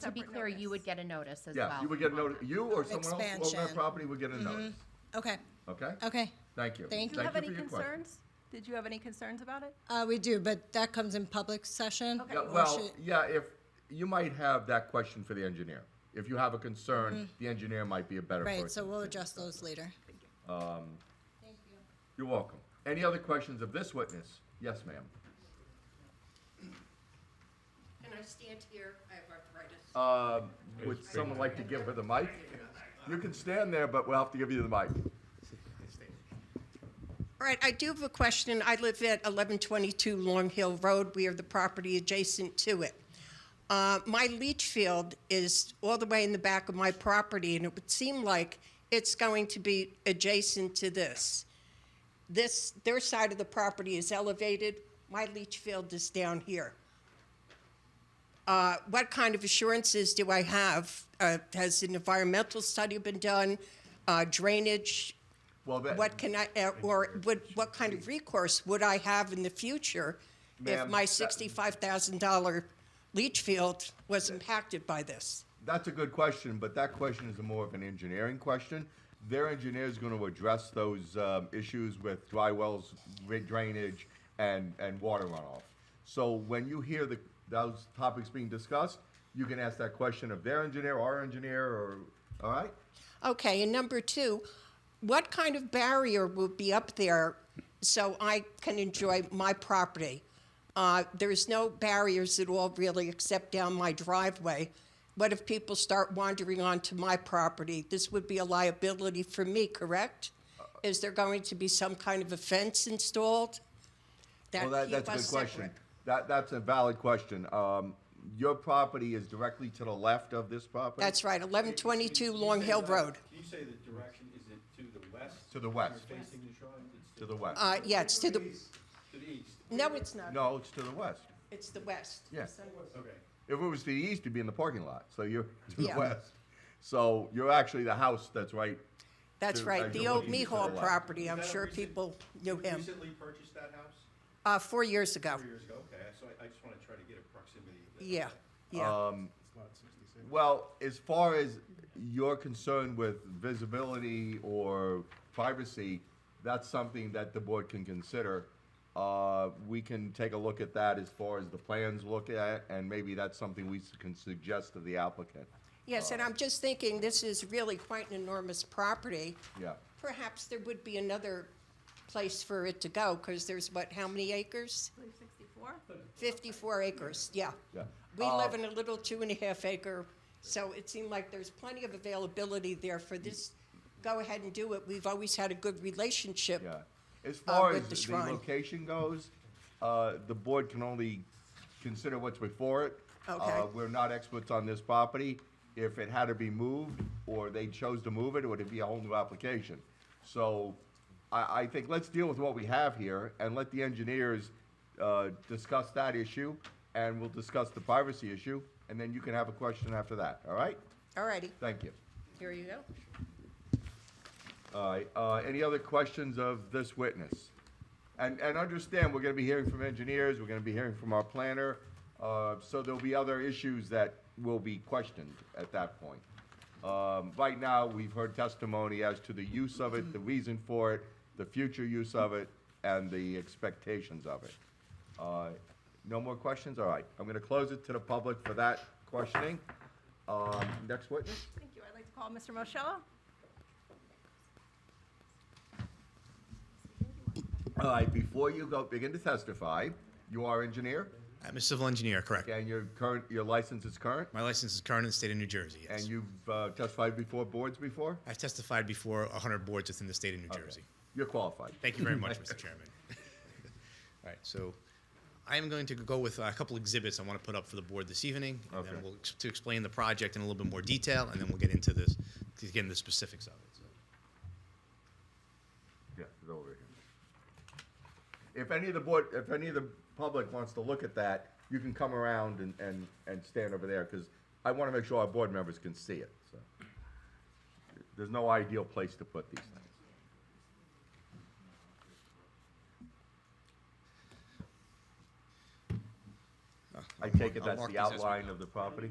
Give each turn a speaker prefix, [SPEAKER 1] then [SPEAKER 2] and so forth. [SPEAKER 1] To be clear, you would get a notice as well.
[SPEAKER 2] Yeah, you would get a notice, you or someone else who owned that
[SPEAKER 3] Expansion.
[SPEAKER 2] property would get a notice,
[SPEAKER 3] Okay,
[SPEAKER 2] okay?
[SPEAKER 3] okay.
[SPEAKER 2] Thank you.
[SPEAKER 3] Thank
[SPEAKER 4] Do you have
[SPEAKER 2] for
[SPEAKER 4] any
[SPEAKER 2] your question.
[SPEAKER 4] concerns? Did you have any concerns about it?
[SPEAKER 3] Uh, we do, but that comes in public session.
[SPEAKER 4] Okay.
[SPEAKER 2] Yeah,
[SPEAKER 3] or
[SPEAKER 2] well,
[SPEAKER 3] should-
[SPEAKER 2] yeah, if, you might have that question for the engineer. If you have a concern, the engineer might be a better person.
[SPEAKER 3] Right, so we'll
[SPEAKER 2] to-
[SPEAKER 3] adjust those later.
[SPEAKER 2] You're welcome. Any other questions of this witness? Yes, ma'am.
[SPEAKER 5] Can I stand here? I have arthritis.
[SPEAKER 2] Uh, would someone like to give her the mic? You can stand there, but we'll have to give you the mic.
[SPEAKER 5] All right, I do have a question. I live at 1122 Long Hill Road. We are the property adjacent to it. Uh, My leach field is all the way in the back of my property, and it would seem like it's going to be adjacent to this. This, their side of the property is elevated. My leach field is down here. Uh, What kind of assurances do I have? Uh, Has an environmental study been done? Uh, Drainage,
[SPEAKER 2] Well, that-
[SPEAKER 5] what can I, uh, or would, what kind of recourse would I have in the future if
[SPEAKER 2] Ma'am,
[SPEAKER 5] my
[SPEAKER 2] that-
[SPEAKER 5] sixty-five thousand dollar leach field was impacted by this?
[SPEAKER 2] That's a good question, but that question is more of an engineering question. Their engineer is going to address those um, issues with dry wells, ri- drainage, and, and water runoff. So when you hear the, those topics being discussed, you can ask that question of their engineer, our engineer, or, all right?
[SPEAKER 5] Okay, and number two, what kind of barrier will be up there so I can enjoy my property? Uh, there's no barriers at all really except down my driveway. What if people start wandering onto my property? This would be a liability for me, correct? Is there going to be some kind of a fence installed?
[SPEAKER 2] Well, that,
[SPEAKER 5] keep
[SPEAKER 2] that's a
[SPEAKER 5] us
[SPEAKER 2] good question.
[SPEAKER 5] separate?
[SPEAKER 2] That, that's a valid question. Um, Your property is directly to the left of this property?
[SPEAKER 5] That's right, eleven twenty-two Long Hill Road.
[SPEAKER 6] Can you say the direction, is it to the west?
[SPEAKER 2] To the west.
[SPEAKER 6] You're facing the shrine? It's
[SPEAKER 2] To the west.
[SPEAKER 5] Uh, yeah, it's to the,
[SPEAKER 6] east. To the east,
[SPEAKER 5] no, it's not.
[SPEAKER 2] No, it's to the west.
[SPEAKER 5] It's the west.
[SPEAKER 2] Yeah.
[SPEAKER 6] okay.
[SPEAKER 2] If it was to the east, you'd be in the parking lot, so you're to the
[SPEAKER 5] Yeah.
[SPEAKER 2] west. So you're actually the house that's right,
[SPEAKER 5] That's
[SPEAKER 2] to- uh,
[SPEAKER 5] right,
[SPEAKER 2] as
[SPEAKER 5] the
[SPEAKER 2] you're
[SPEAKER 5] old
[SPEAKER 2] looking to the
[SPEAKER 5] Mihal
[SPEAKER 2] left.
[SPEAKER 5] property, I'm
[SPEAKER 6] Is that a
[SPEAKER 5] sure
[SPEAKER 6] recent-
[SPEAKER 5] people knew
[SPEAKER 6] you
[SPEAKER 5] him,
[SPEAKER 6] Recently purchased that house,
[SPEAKER 5] uh, four years ago,
[SPEAKER 6] four years ago, okay, so I, I just wanna try to get a proximity. of that.
[SPEAKER 5] yeah,
[SPEAKER 2] Um,
[SPEAKER 5] yeah.
[SPEAKER 2] well, as far as your concern with visibility or privacy, that's something that the board can consider. Uh, we can take a look at that as far as the plans look at, and maybe that's something we s- can suggest to the applicant.
[SPEAKER 5] Yes, and I'm just thinking, this is really quite an enormous property.
[SPEAKER 2] Yeah.
[SPEAKER 5] Perhaps there would be another place for it to go, because there's what, how many acres?
[SPEAKER 4] I believe 64?
[SPEAKER 5] Fifty-four acres, yeah.
[SPEAKER 2] Yeah.
[SPEAKER 5] We
[SPEAKER 2] Uh,
[SPEAKER 5] live in a little two and a half acre, so it seemed like there's plenty of availability there for this, go ahead and do it, we've always had a good relationship.
[SPEAKER 2] Yeah. As far
[SPEAKER 5] Uh, with
[SPEAKER 2] as
[SPEAKER 5] the
[SPEAKER 2] the
[SPEAKER 5] shrine.
[SPEAKER 2] location goes, uh, the board can only consider what's before it.
[SPEAKER 5] Okay.
[SPEAKER 2] Uh, We're not experts on this property. If it had to be moved, or they chose to move it, it would be a whole new application. So I, I think let's deal with what we have here and let the engineers uh, discuss that issue, and we'll discuss the privacy issue, and then you can have a question after that, all right?
[SPEAKER 5] All righty,
[SPEAKER 2] Thank you.
[SPEAKER 5] here you go.
[SPEAKER 2] All right, uh, any other questions of this witness? And, and understand, we're gonna be hearing from engineers, we're gonna be hearing from our planner, uh, so there'll be other issues that will be questioned at that point. Um, right now, we've heard testimony as to the use of it, the reason for it, the future use of it, and the expectations of it. Uh, No more questions? All right, I'm gonna close it to the public for that questioning. Um, next witness?
[SPEAKER 4] Thank you. I'd like to call Mr. Moschella.
[SPEAKER 2] All right, before you go begin to testify, you are engineer,
[SPEAKER 7] I'm a civil engineer, correct.
[SPEAKER 2] and your current, your license is current,
[SPEAKER 7] My license is current in the state of New Jersey, yes.
[SPEAKER 2] and you've uh, testified before boards before?
[SPEAKER 7] I've testified before 100 boards within the state of New Jersey.
[SPEAKER 2] You're qualified.
[SPEAKER 7] Thank you very much, Mr. Chairman. All right, so I am going to go with a couple exhibits I want to put up for the board this evening, and
[SPEAKER 2] Okay.
[SPEAKER 7] then we'll, ex- to explain the project in a little bit more detail, and then we'll get into this, to get into the specifics of it. So,
[SPEAKER 2] Yeah, it's over here. If any of the board, if any of the public wants to look at that, you can come around and, and, and stand over there, because I want to make sure our board members can see it, so. There's no ideal place to put these things. I take it
[SPEAKER 7] I'll
[SPEAKER 2] that's
[SPEAKER 7] mark
[SPEAKER 2] the
[SPEAKER 7] these as we
[SPEAKER 2] outline
[SPEAKER 7] go.
[SPEAKER 2] of the property?